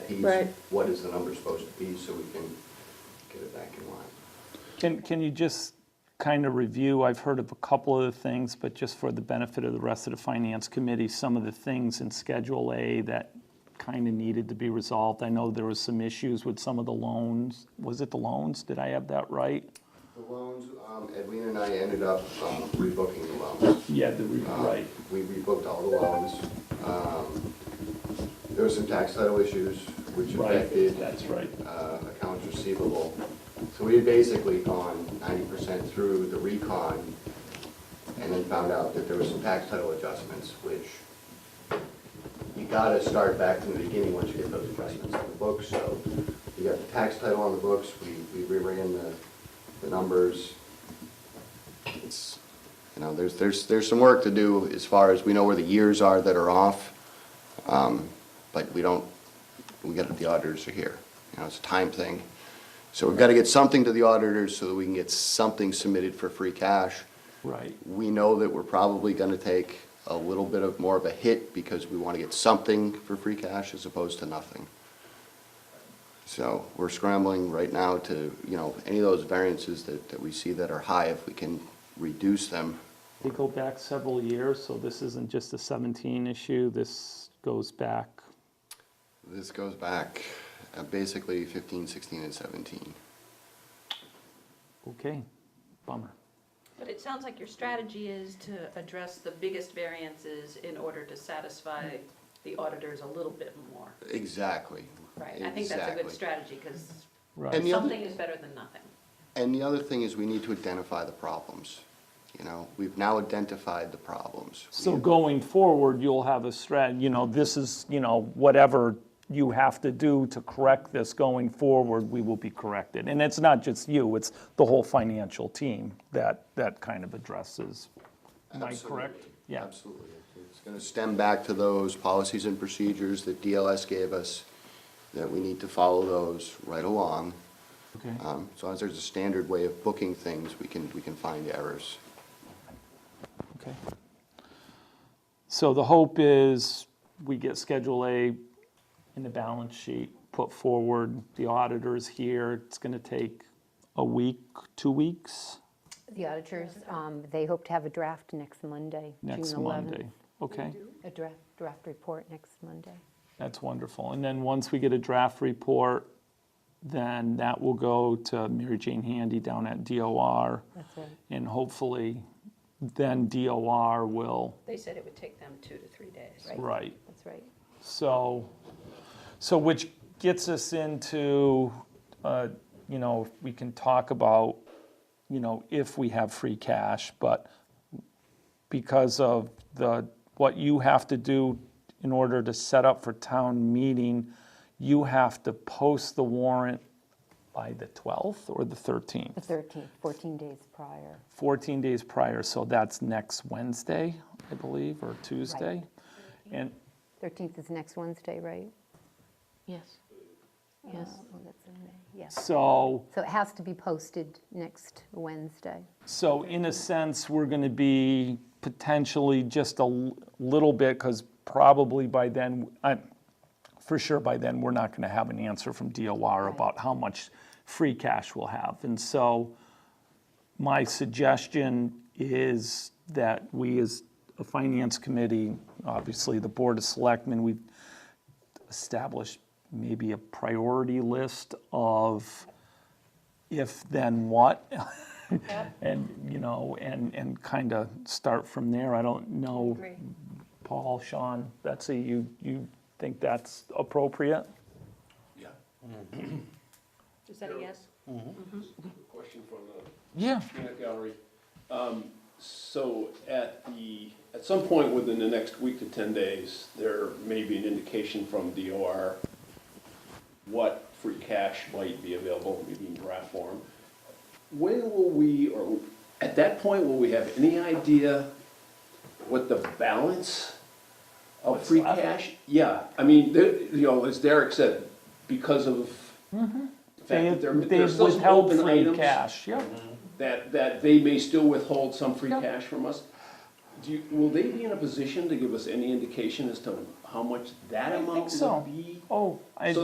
piece. Right. What is the number supposed to be, so we can get it back in line? Can, can you just kind of review, I've heard of a couple of the things, but just for the benefit of the rest of the finance committee, some of the things in Schedule A that kind of needed to be resolved? I know there was some issues with some of the loans. Was it the loans? Did I have that right? The loans, um, Edwina and I ended up um, rebooking the loans. Yeah, the, Um, We rebooked all the loans. Um, There were some tax title issues which affected right. uh, accounts receivable. So we had basically gone ninety percent through the recon and then found out that there were some tax title adjustments, which you gotta start back from the beginning once you get those adjustments on the books. So we got the tax title on the books, we, we reran the, the numbers. It's, you know, there's, there's, there's some work to do as far as, we know where the years are that are off. um, But we don't, we got, the auditors are here, you know, it's a time thing. So we've gotta get something to the auditors so that we can get something submitted for free cash. Right. We know that we're probably gonna take a little bit of, more of a hit because we wanna get something for free cash as opposed to nothing. So we're scrambling right now to, you know, any of those variances that, that we see that are high, if we can reduce them. They go back several years, so this isn't just a 17 issue. This goes back, This goes back uh, basically 15, 16, and seventeen. okay, bummer. But it sounds like your strategy is to address the biggest variances in order to satisfy the auditors a little bit more. Exactly. Right, I think that's a good Exactly. strategy, because Right. And the other- something is better than nothing. And the other thing is we need to identify the problems. You know, we've now identified the problems. So going forward, you'll have a strat, you know, this is, you know, whatever you have to do to correct this going forward, we will be corrected. And it's not just you, it's the whole financial team that, that kind of addresses. Am I correct? Absolutely. Yeah. Absolutely. It's going to stem back to those policies and procedures that DLS gave us, that we need to follow those right along. Okay. Um, As long as there's a standard way of booking things, we can, we can find errors. Okay. So the hope is we get Schedule A in the balance sheet put forward, the auditor's here, it's gonna take a week, two weeks? The auditors, um, they hope to have a draft next Monday, June 11th. Next Monday, okay? A draft, draft report next Monday. That's wonderful. And then once we get a draft report, then that will go to Mary Jane Handy down at DOR. That's right. And hopefully, then DOR will, They said it would take them two to three days. Right. right. That's right. So, so which gets us into, uh, you know, if we can talk about, you know, if we have free cash, but because of the, what you have to do in order to set up for town meeting, you have to post the warrant by the 12th or the 13th? The 13th, 14 days prior. 14 days prior, so that's next Wednesday, I believe, or Tuesday. And, 13th is next Wednesday, right? Yes. Yes. Oh, that's in May, yes. so. So it has to be posted next Wednesday. So in a sense, we're going to be potentially just a l- little bit, because probably by then, i for sure by then, we're not going to have an answer from DOR Right. about how much free cash we'll have. And so my suggestion is that we as a finance committee, obviously the Board of Selectmen, we've established maybe a priority list of if, then what? And, you know, and, and kind of start from there. I don't know. Agree. Paul, Sean, Betsy, you, you think that's appropriate? Yeah. Is that a yes? Question from uh, the Yeah. peanut gallery. Um, So at the, at some point within the next week to 10 days, there may be an indication from DOR what free cash might be available, maybe in draft form. When will we, or at that point, will we have any idea what the balance of free left? cash? Yeah, I mean, there- you know, as Derek said, because of the fact Mm-hmm. They, that there- they there's still some withheld open free items Mm-hmm. cash, yeah. that, that they may still withhold some free cash from us. Do you, will they be in a position to give us any indication as to how much that I think amount so. would be? Oh, I, So